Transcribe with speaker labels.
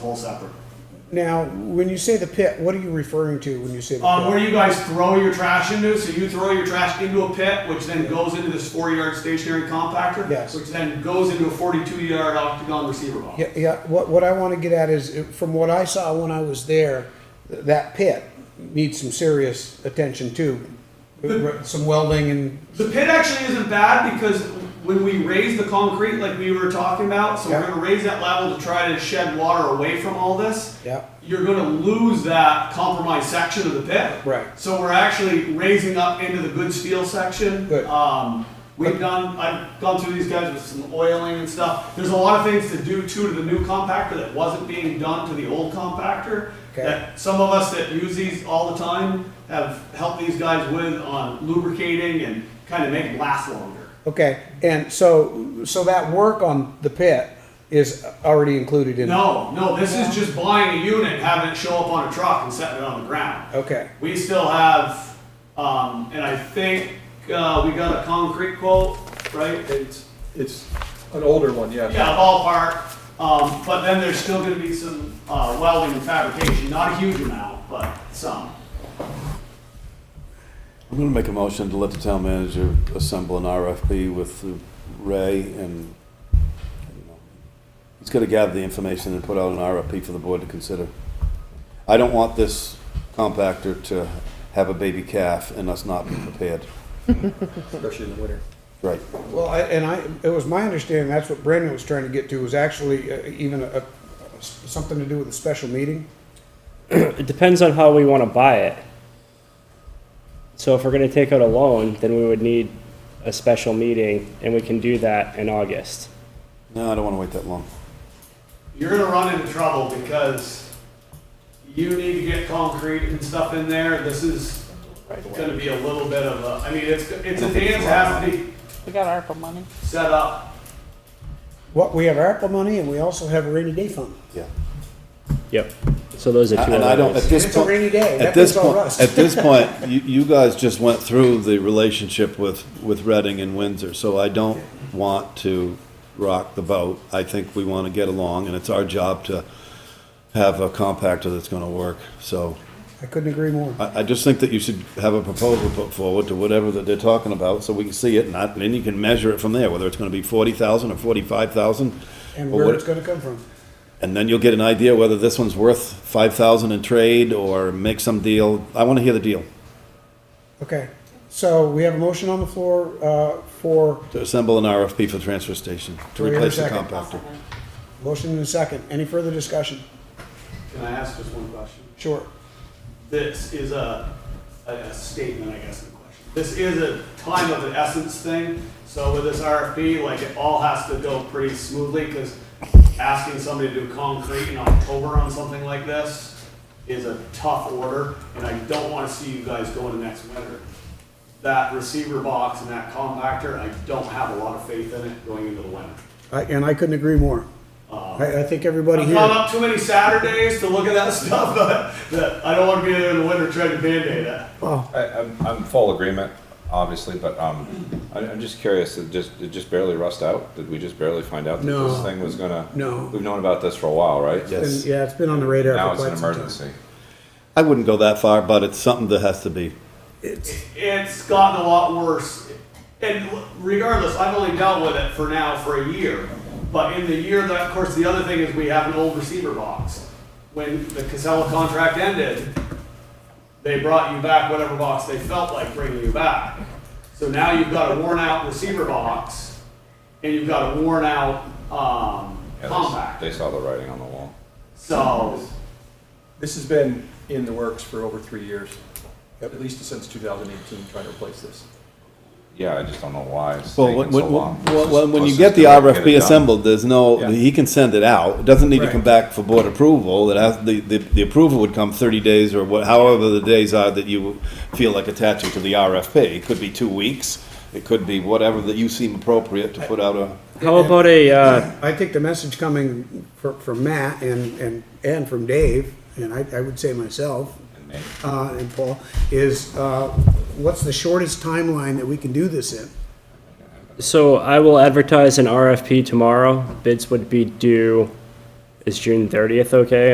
Speaker 1: whole separate.
Speaker 2: Now, when you say the pit, what are you referring to when you say the
Speaker 1: Um,
Speaker 2: pit?
Speaker 1: where you guys throw your trash into, so you throw your trash into a pit, which then goes into this four yard stationary compactor.
Speaker 2: Yes.
Speaker 1: Which then goes into a forty two yard octagon receiver box.
Speaker 2: Yeah, yeah, what, what I want to get at is, uh, from what I saw when I was there, th- that pit needs some serious attention too. R- Some welding and,
Speaker 1: The pit actually isn't bad because when we raise the concrete like we were talking about, so
Speaker 2: Yeah.
Speaker 1: we're gonna raise that level to try to shed water away from all this.
Speaker 2: yeah,
Speaker 1: You're gonna lose that compromised section of the pit.
Speaker 2: Right.
Speaker 1: So we're actually raising up into the good steel section.
Speaker 2: Good.
Speaker 1: Um, we've
Speaker 2: But-
Speaker 1: done, I've gone through these guys with some oiling and stuff. There's a lot of things to do too to the new compactor that wasn't being done to the old compactor.
Speaker 2: Okay.
Speaker 1: That some of us that use these all the time have helped these guys with on lubricating and kind of make them last longer.
Speaker 2: okay, and so, so that work on the pit is already included in?
Speaker 1: No, no, this is just buying a unit, having it show up on a truck and setting it on the ground.
Speaker 2: Okay,
Speaker 1: We still have, um, and I think, uh, we got a concrete quote, right? It's,
Speaker 3: It's an older one, yeah.
Speaker 1: yeah, ballpark, um, but then there's still gonna be some, uh, welding and fabrication, not a huge amount, but some.
Speaker 4: I'm gonna make a motion to let the town manager assemble an RFP with Ray and, I don't know. he's gonna gather the information and put out an RFP for the board to consider. I don't want this compactor to have a baby calf and us not be prepared.
Speaker 3: Especially in the winter.
Speaker 4: Right.
Speaker 2: well, I- and I, it was my understanding, that's what Brandon was trying to get to, was actually uh, even a, a- something to do with a special meeting?
Speaker 5: It depends on how we want to buy it. So if we're going to take out a loan, then we would need a special meeting, and we can do that in August.
Speaker 4: No, I don't wanna wait that long.
Speaker 1: You're gonna run into trouble because you need to get concrete and stuff in there, this is gonna be a little bit of a, I mean, it's, it's a dance that has to be
Speaker 6: We got ARPA money.
Speaker 1: set up.
Speaker 2: What, we have ARPA money and we also have a rainy day fund.
Speaker 4: Yeah.
Speaker 5: Yep. So those are two
Speaker 4: Uh, And I don't, at
Speaker 5: other
Speaker 4: this
Speaker 2: It's a
Speaker 4: point.
Speaker 2: rainy day.
Speaker 4: At
Speaker 2: That
Speaker 4: this
Speaker 2: puts all
Speaker 4: point,
Speaker 2: rust.
Speaker 4: at this point, you, you guys just went through the relationship with, with Reading and Windsor, so I don't want to rock the boat. I think we want to get along, and it's our job to have a compactor that's going to work. So
Speaker 2: I couldn't agree more.
Speaker 7: Uh,
Speaker 4: I, I just think that you should have a proposal put forward to whatever that they're talking about, so we can see it, and I- and then you can measure it from there, whether it's going to be forty thousand or forty-five thousand.
Speaker 2: And where it's gonna come from.
Speaker 4: And then you'll get an idea whether this one's worth five thousand in trade or make some deal. I want to hear the deal.
Speaker 2: Okay, so we have a motion on the floor, uh, for,
Speaker 4: To assemble an RFP for the transfer station, to
Speaker 2: Do we have a
Speaker 4: replace the
Speaker 2: second?
Speaker 4: compactor.
Speaker 2: motion in a second. Any further discussion?
Speaker 1: Can I ask just one question?
Speaker 2: Sure.
Speaker 1: this is a, a- a statement, I guess, in question. This is a time of the essence thing, so with this RFP, like, it all has to go pretty smoothly, because asking somebody to do concrete in October on something like this is a tough order, and I don't want to see you guys go into next winter. That receiver box and that compactor, I don't have a lot of faith in it going into the winter.
Speaker 2: I, and I couldn't agree more. I, I think everybody
Speaker 1: I've gone
Speaker 2: here,
Speaker 1: up too many Saturdays to look at that stuff, but but I don't want to be there in the winter trying to Band-Aid that.
Speaker 7: I, I'm, I'm full agreement, obviously, but, um, I'm, I'm just curious, it just, it just barely rust out? Did we just barely find out that
Speaker 2: No.
Speaker 7: this thing was gonna?
Speaker 2: No.
Speaker 7: We've known about this for a while, right?
Speaker 2: and yeah, it's been on the radar
Speaker 7: Now
Speaker 2: for
Speaker 7: it's an
Speaker 2: quite some time.
Speaker 7: emergency.
Speaker 4: I wouldn't go that far, but it's something that has to be.
Speaker 1: it's gotten a lot worse. And regardless, I've only dealt with it for now for a year. But in the year that, of course, the other thing is we have an old receiver box. When the Casella contract ended, they brought you back whatever box they felt like bringing you back. So now you've got a worn out receiver box and you've got a worn out um,
Speaker 7: Yeah, they s-
Speaker 1: compact.
Speaker 7: They saw the writing on the wall.
Speaker 1: So
Speaker 3: This has been in the works for over three years, at least since 2018, trying to replace this.
Speaker 7: Yeah, I just don't know why it's
Speaker 4: Well,
Speaker 7: taking
Speaker 4: when,
Speaker 7: so
Speaker 4: when,
Speaker 7: long.
Speaker 4: well,
Speaker 7: Let's
Speaker 4: when, when you
Speaker 7: just
Speaker 4: get the
Speaker 7: do it, it
Speaker 4: RFP
Speaker 7: done.
Speaker 4: assembled, there's no,
Speaker 3: Yeah.
Speaker 4: he can send it out. It doesn't need to
Speaker 3: Right.
Speaker 4: come back for board approval. It has, the, the, the approval would come thirty days or what, however the days are that you feel like attaching to the RFP. It could be two weeks. It could be whatever that you seem appropriate to put out a.
Speaker 5: How about a uh,
Speaker 2: I think the message coming from, from Matt and, and, and from Dave, and I, I would say myself,
Speaker 7: And maybe-
Speaker 2: uh, and Paul, is, uh, what's the shortest timeline that we can do this in?
Speaker 5: so I will advertise an RFP tomorrow. Bids would be due Is June thirtieth okay?